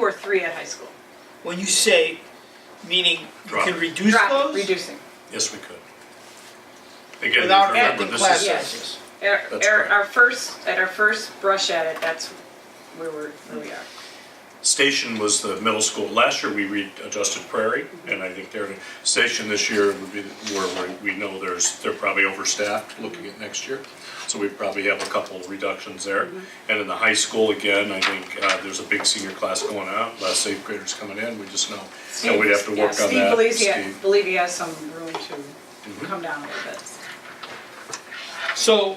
or three at high school. When you say, meaning you Drop can it. reduce Drop it, those? reducing. Yes, we could. Again, Without remember, adding this class is, Yes. sizes? Our, That's our, correct. our first, at our first brush at it, that's where we're, where we are. Station was the middle school, last year we readjusted Prairie, and I think they're, Station this year would be where we, we know there's, they're probably overstaffed looking at next year. So we probably have a couple reductions there. Mm-hmm. And in the high school, again, I think, uh, there's a big senior class going out, last eighth graders coming in, we just know. And we'd have to Steve- work on Yeah, Steve that. believes he, Steve. Mm-hmm. believe he has some room to come down a little bit. So,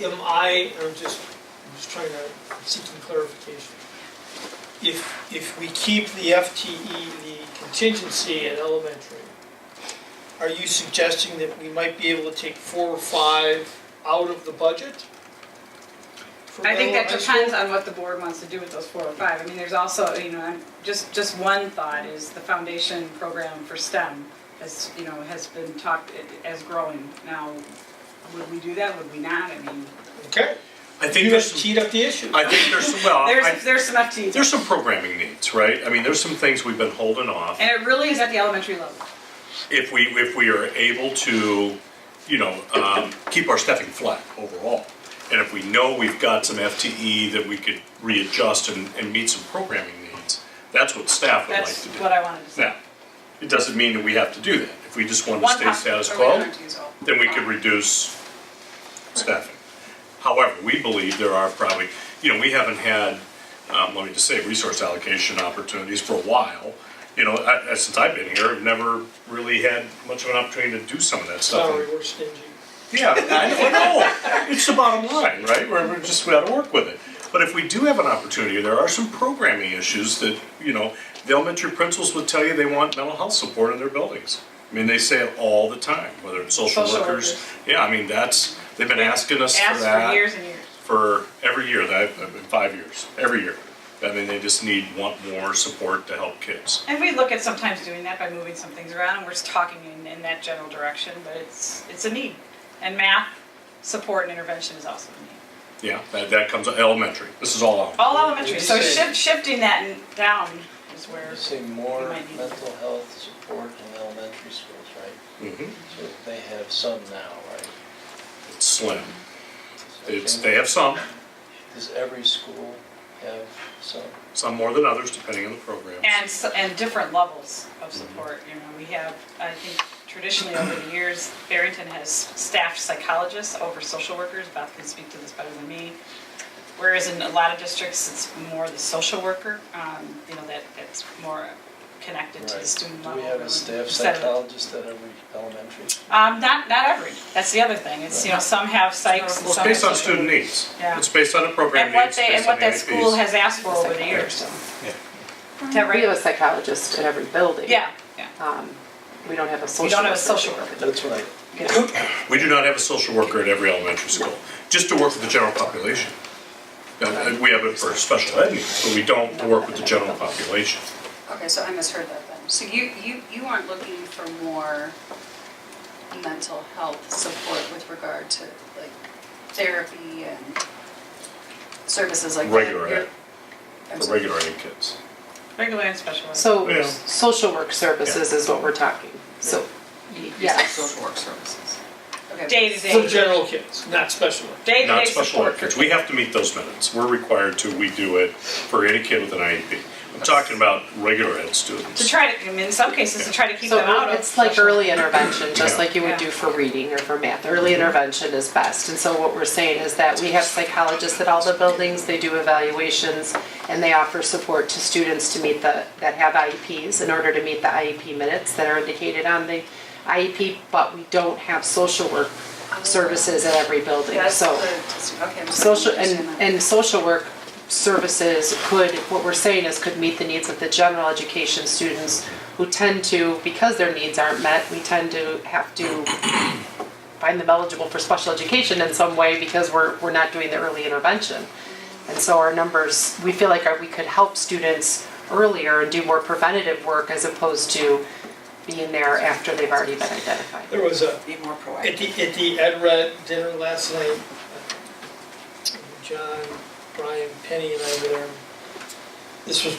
am I, I'm just, I'm just trying to seek some clarification. If, if we keep the FTE, the contingency at elementary, are you suggesting that we might be able to take four or five out of the budget? for I think that elementary? depends on what the board wants to do with those four or five. I mean, there's also, you know, I'm- just, just one thought is the foundation program for STEM has, you know, has been talked i- as growing. Now, would we do that, would we not? I mean, Okay, I think you have there's, some- teed up the issue. I think there's, some- well, Uh, I, there's, there's some FTE. there's some programming needs, right? I mean, there's some things we've been holding off. And it really is at the elementary level. if we, if we are able to, you know, um, keep our staffing flat overall. And if we know we've got some FTE that we could readjust and, and meet some programming needs, that's what staff would like That's to what do. I wanted to say. Now, it doesn't mean that we have to do that. If we just want to One stay possible- status or we quo, don't use all. then we could reduce staffing. However, we believe there are probably, you know, we haven't had, um, let me just say, resource allocation opportunities for a while. You know, I, I- since I've been here, I've never really had much of an opportunity to do some of that stuff. Sorry, we're stingy. Yeah, I don't know. It's the bottom line, right? We're, we're just, we gotta work with it. But if we do have an opportunity, there are some programming issues that, you know, the elementary principals would tell you they want mental health support in their buildings. I mean, they say it all the time, whether it's social Social workers. workers. Yeah, I mean, that's, they've been asking us for Asked for years that and years. for every year, that, I've been five years, every year. I mean, they just need, want more support to help kids. And we look at sometimes doing that by moving some things around, and we're just talking in, in that general direction, but it's, it's a need. And math, support and intervention is also a need. Yeah, that, that comes elementary. This is all elementary. All elementary, so Did you say- shift, shifting that in- down is where, You say more It might be- mental health support in elementary schools, right? Mhm. So they have some now, right? It's slim. It's, Okay. they have some. Does every school have some? some more than others, depending on the program. and, s- and different levels of Mm-hmm. support, you know, we have, I think traditionally over the years, Barrington has staffed psychologists over social workers, Beth can speak to this better than me. Whereas in a lot of districts, it's more the social worker, um, you know, that, that's more connected to the Right. student level. Do we have really, a staff instead of- psychologist at every elementary? Um, not, not every, that's the other thing, it's, you know, some have psychs and Well, it's some. based have on social- student needs. Yeah. It's based on a program And what needs, they, and based on what the that school IEPs. has asked for over the years, so. Is that We have right? a psychologist at every building. Yeah, yeah. Um, We don't have a social. We don't have a worker. social worker. That's what I, Yeah. We do not have a social worker at every elementary school, just to work with the general population. Now, uh, We have it for special ed needs, but we don't work with the general population. Okay, so I misheard that then. So you, you, you aren't looking for more mental health support with regard to like therapy and services like that? Regular You're- ed. I'm For sorry. regular ed kids. Regular and special ed. So, Yeah. social work services is what we're talking, so, You said Yes. Social work services. Okay. Day to For day, general kids, not special ed. day to day Not special support. ed kids. We have to meet those minutes. We're required to, we do it for any kid with an IEP. I'm talking about regular ed To students. try to, I mean, in some cases, to try to keep so them out of. it's like early intervention, just Yeah. like you would do for reading or for math. Early intervention is best, and so what we're saying is that we have psychologists at all the buildings, they do evaluations, and they offer support to students to meet the, that have IEPs in order to meet the IEP minutes that are indicated on the IEP, but we don't have social work services at every building, That's so. the- okay, I'm sorry. Social, I'm and, understanding and social work services could, what we're saying is could meet the needs of the general education students who tend to, because their needs aren't met, we tend to have to find them eligible for special education in some way because we're, we're not doing the early intervention. And so our numbers, we feel like our- we could help students earlier and do more preventative work as opposed to being there after they've already been identified. There was a, that. Be more proactive. At the, at the Ed Red dinner last night, uh, John, Brian, Penny and I were there. This was